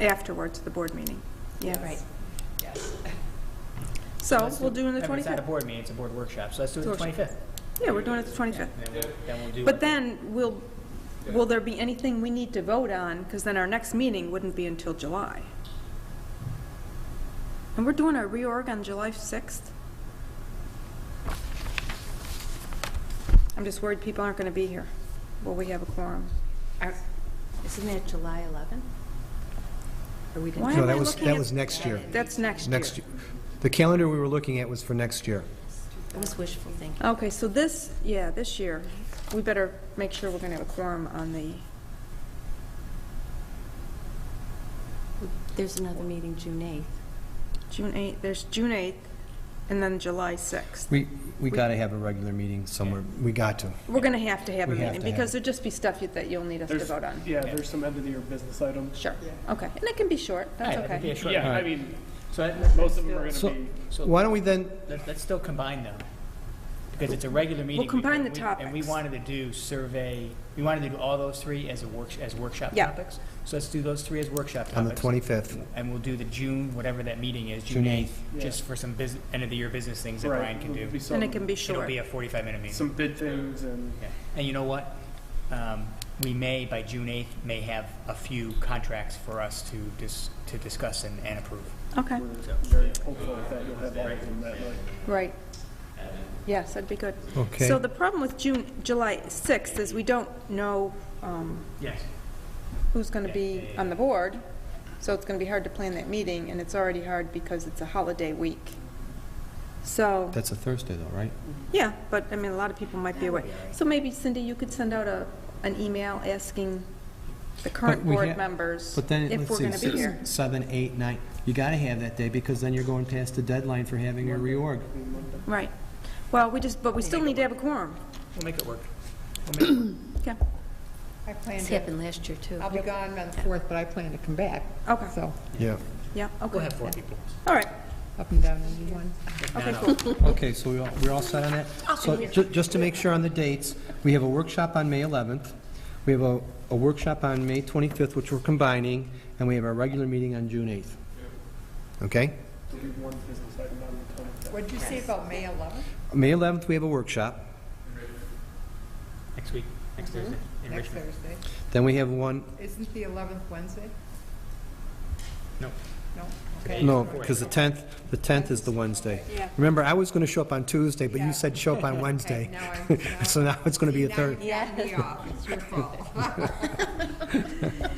afterwards, the board meeting. Yeah, right. Yes. So Let's we'll do it on the remember, It's not a 25th. board meeting, it's a board workshop, so let's do it the Workshop. 25th. Yeah, we're doing it the 25th. And then we'll- Then we'll do. But then, will, will there be anything we need to vote on? Because then our next meeting wouldn't be until July. And we're doing our reorg on July 6th? I'm just worried people aren't going to be here. Will we have a quorum? Are- Isn't that July 11? Or we Why didn't? am No, that I was, looking that at- was next year. That's next year. Next year. The calendar we were looking at was for next year. It was wishful thinking. Okay, so this, yeah, this year, we better make sure we're going to have a quorum on the, There's another meeting June 8th. June 8th, there's June 8th, and then July 6th. We, we got to have a regular meeting somewhere. We got to. We're going to have to have a We have meeting, to have because it. there'll just be stuff you- that you'll need us to There's- vote on. Yeah, there's some end of the year business items. Sure, okay, and it can be short, that's Right, that'd be a okay. short Yeah, I meeting. mean, So I- most of them are So- gonna be, so Why don't we then, let- let's still combine them, because it's a regular meeting. we- combine the and we- And we topics. wanted to do survey, we wanted to do all those three as a work, as workshop Yeah. topics. So let's do those three as workshop topics. on the 25th? And we'll do the June, whatever that meeting is, June June 8th, Yeah. just for some business, end-of-the-year business things that right, Brian can it'll do. be And it some, can be It'll short. be a 45-minute meeting. some bid things and, Yeah. And you know what? Um, We may, by June 8th, may have a few contracts for us to dis, to discuss and and approve. Okay, we're very hopeful that you'll have all of them that night. right. Yes, that'd be good. Okay. So the problem with June, July 6th is we don't know um, Yes. who's going to be on the board, so it's going to be hard to plan that meeting, and it's already hard because it's a holiday week. So, That's a Thursday though, right? yeah, but, I mean, a lot of people might be away. So maybe Cindy, you could send out a, an email asking the current But we board ha- members But then, if let's we're see, going to be six, here. seven, eight, nine, you got to have that day because then you're going past the deadline for having your reorg. Right. Well, we just, but we still need to have a quorum. We'll make it work. Okay, I plan This to, happened last year, too. uh, I'll be gone on the 4th, but I plan to come back, okay, so Yeah. yeah, We'll okay. have four people. All right, up and down in one. okay, cool. Okay, so we all- we're all set on that? So ju- just to make sure on the dates, we have a workshop on May 11th, we have a a workshop on May 25th, which we're combining, and we have our regular meeting on June 8th. Okay? There'll be one business item on the twenty fifth. What'd you say about May 11th? May 11th, we have a workshop, Next week, next Thursday, in Next Richmond. Thursday. then we have one, Isn't the 11th Wednesday? No. No? Today. Okay. no, because the 10th, the 10th is the Wednesday. Yeah. Remember, I was going to show up on Tuesday, but you Yeah. said show up on Okay, Wednesday. now I'm- now- So now it's going to be a Now third. you knocked me off. It's your fault.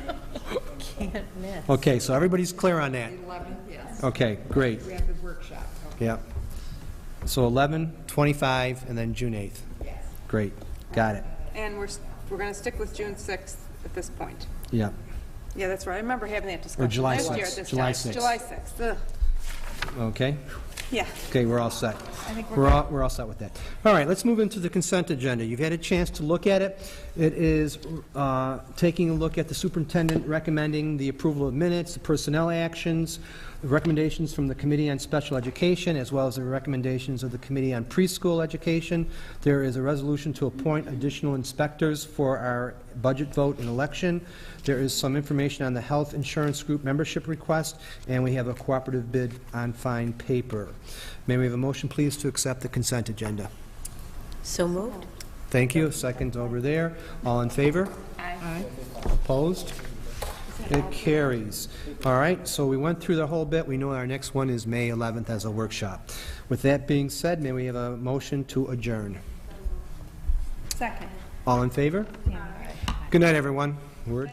Can't miss. Okay, so everybody's clear on that? 11th, yes. Okay, great, We have the workshop, okay, yeah. So 11, 25, and then June 8th. yes. Great, got it, And we're, s- we're going to stick with June 6th at this point. yeah. Yeah, that's right, I remember having that discussion. July last year 6th, at this July time. 6th. July 6th, ugh, Okay, yeah. okay, we're all set. We're all, we're all set with that. All right, let's move into the consent agenda. You've had a chance to look at it. It is uh, taking a look at the superintendent recommending the approval of minutes, the personnel actions, the recommendations from the Committee on Special Education, as well as the recommendations of the Committee on Preschool Education. There is a resolution to appoint additional inspectors for our budget vote and election. There is some information on the health insurance group membership request, and we have a cooperative bid on fine paper. May we have a motion, please, to accept the consent agenda? So moved. Thank you. Second over there. All in favor? Aye. Opposed? It carries. All right, so we went through the whole bit. We know our next one is May 11th as a workshop. With that being said, may we have a motion to adjourn? Second. All in favor? Good night, everyone. We're...